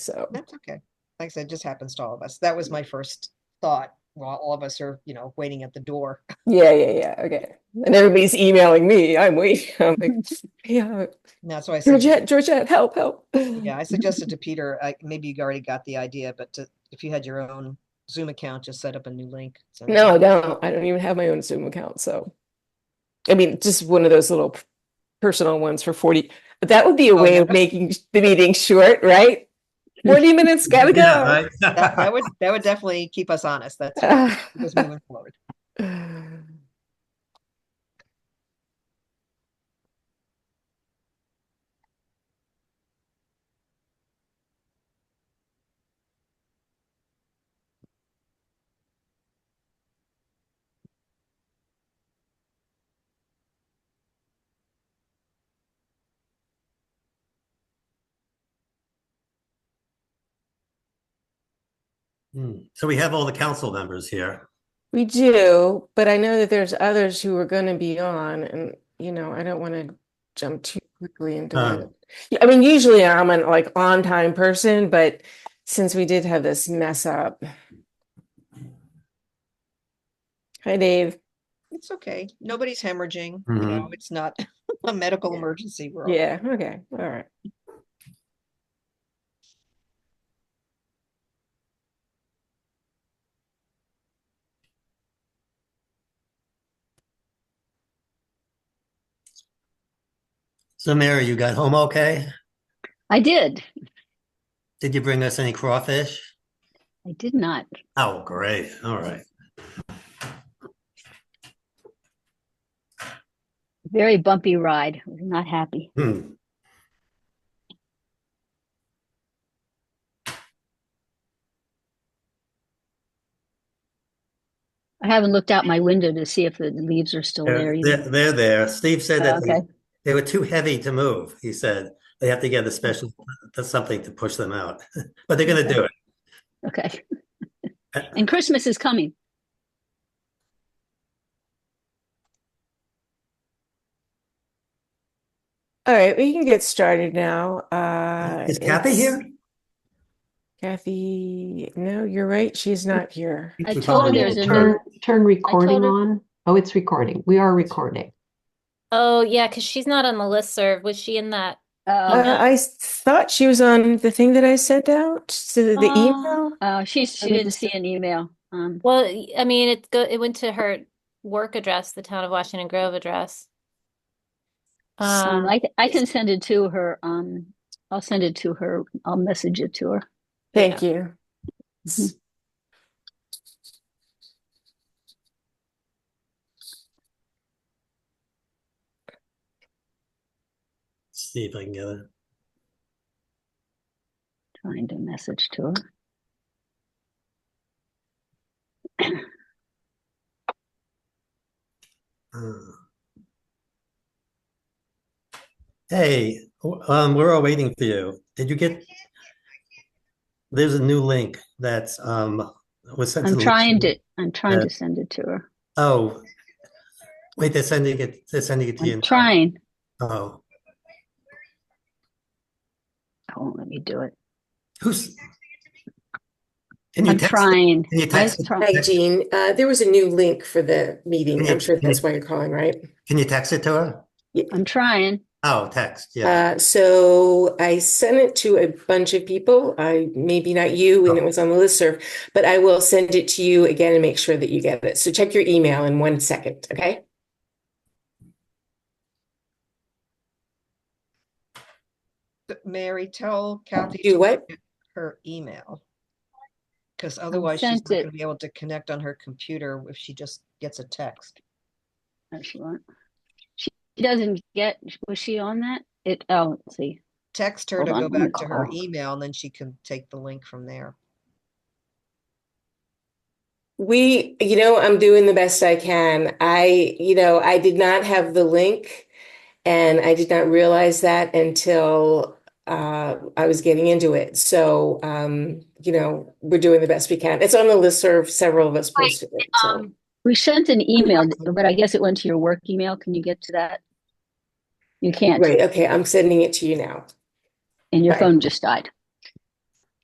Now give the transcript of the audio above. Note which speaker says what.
Speaker 1: So,
Speaker 2: That's okay. Like I said, it just happens to all of us. That was my first thought while all of us are, you know, waiting at the door.
Speaker 1: yeah, yeah, yeah. Okay. And everybody's emailing me. I'm waiting. I'm like, yeah,
Speaker 2: And that's why I said,
Speaker 1: Georgette, Georgette, help, help.
Speaker 2: yeah, I suggested to Peter, I, maybe you already got the idea, but to, if you had your own Zoom account, just set up a new link. send it
Speaker 1: No, I
Speaker 2: out.
Speaker 1: don't. I don't even have my own Zoom account. So, I mean, just one of those little p- personal ones for 40. But that would be a
Speaker 2: Oh,
Speaker 1: way
Speaker 2: yeah.
Speaker 1: of making sh- the meeting short, right? 40 minutes, gotta go.
Speaker 3: Yeah, right?
Speaker 2: That, that would, that would definitely keep us honest. That's keep us moving forward.
Speaker 3: Hmm. So we have all the council members here.
Speaker 1: we do, but I know that there's others who are going to be on, and you know, I don't want to jump too quickly into
Speaker 3: Uh.
Speaker 1: it. Yeah, I mean, usually I'm an like on time person, but since we did have this mess up, hi Dave.
Speaker 2: It's okay. Nobody's hemorrhaging. You
Speaker 3: Mhm.
Speaker 2: know, it's not a medical
Speaker 1: Yeah.
Speaker 2: emergency. We're all-
Speaker 1: Yeah, okay, all right.
Speaker 3: So Mary, you got home okay?
Speaker 4: I did.
Speaker 3: Did you bring us any crawfish?
Speaker 4: I did not.
Speaker 3: Oh, great. All right.
Speaker 4: Very bumpy ride. We're not happy.
Speaker 3: Hmm.
Speaker 4: I haven't looked out my window to see if the leaves are still there.
Speaker 3: They're,
Speaker 4: either.
Speaker 3: they're- they're there. Steve said
Speaker 4: Oh,
Speaker 3: that they-
Speaker 4: okay.
Speaker 3: they were too heavy to move. He said they have to get a special, that's something to push them out, but they're going to do it.
Speaker 4: Okay.
Speaker 3: Uh,
Speaker 4: and Christmas is coming.
Speaker 1: All right, we can get started now. Uh,
Speaker 3: Is Kathy
Speaker 1: it's-
Speaker 3: here?
Speaker 1: Kathy, no, you're right. She's not here.
Speaker 4: I
Speaker 3: She's
Speaker 4: told her
Speaker 3: probably
Speaker 4: there's
Speaker 3: at
Speaker 4: a
Speaker 3: work.
Speaker 5: Turn, turn recording
Speaker 6: her-
Speaker 5: on. Oh, it's recording. We are recording.
Speaker 6: Oh, yeah, because she's not on the listserv. Was she in that?
Speaker 1: Uh,
Speaker 4: Uh,
Speaker 1: I s- thought she was on the thing that I sent out, so the, the
Speaker 6: Uh,
Speaker 1: email.
Speaker 4: uh, she she
Speaker 1: Okay,
Speaker 4: didn't
Speaker 1: just-
Speaker 4: see an email. Um,
Speaker 6: Well, y- I mean, it go it went to her work address, the town of Washington Grove address.
Speaker 4: um,
Speaker 6: Um,
Speaker 4: I I can send it to her. Um, I'll send it to her. I'll message it to her.
Speaker 1: Thank you.
Speaker 4: Mhm.
Speaker 3: See if I can get it.
Speaker 4: Trying to message to her.
Speaker 3: Uh. Hey, w- um, we're all waiting for you. Did you get? There's a new link that's, um, was sent to
Speaker 4: I'm
Speaker 3: the.
Speaker 4: trying to I'm trying
Speaker 3: Yeah.
Speaker 4: to send it to her.
Speaker 3: Oh. Wait, they're sending it, they're sending it to you.
Speaker 4: I'm
Speaker 3: now.
Speaker 4: trying.
Speaker 3: Oh,
Speaker 4: I won't let me do it.
Speaker 3: who's? Can you
Speaker 4: I'm
Speaker 3: text? them?
Speaker 4: trying.
Speaker 3: Can you
Speaker 4: I
Speaker 3: text,
Speaker 4: was
Speaker 3: them?
Speaker 4: trying.
Speaker 1: Hi, Jean. Uh, there was a new link for the meeting. I'm sure
Speaker 3: Yeah.
Speaker 1: that's why you're calling, right?
Speaker 3: can you text it to her?
Speaker 4: I'm trying.
Speaker 3: Oh, text, yeah.
Speaker 1: Uh, so I sent it to a bunch of people. I maybe not you, and it was on the listserv, but I will send it to you again and make sure that you get it. So check your email in one second, okay?
Speaker 2: But Mary, tell Kathy.
Speaker 1: Do
Speaker 2: to
Speaker 1: what?
Speaker 2: get Her email. Because otherwise she's not
Speaker 4: sent
Speaker 2: going to
Speaker 4: it.
Speaker 2: be able to connect on her computer if she just gets a text.
Speaker 4: No, she won't. She doesn't get, was she on that? It, oh, let's see.
Speaker 2: text her
Speaker 4: Hold
Speaker 2: to
Speaker 4: on,
Speaker 2: go
Speaker 4: let me
Speaker 2: back to her
Speaker 4: call.
Speaker 2: email and then she can take the link from there.
Speaker 1: We, you know, I'm doing the best I can. I, you know, I did not have the link and I did not realize that until uh, I was getting into it. So, um, you know, we're doing the best we can. It's on the listserv. Several of us posted it. So,
Speaker 6: um,
Speaker 4: We sent an email, but I guess it went to your work email. Can you get to that? You can't,
Speaker 1: right. Okay. I'm sending it to you now.
Speaker 4: and your
Speaker 1: right.
Speaker 4: phone just died.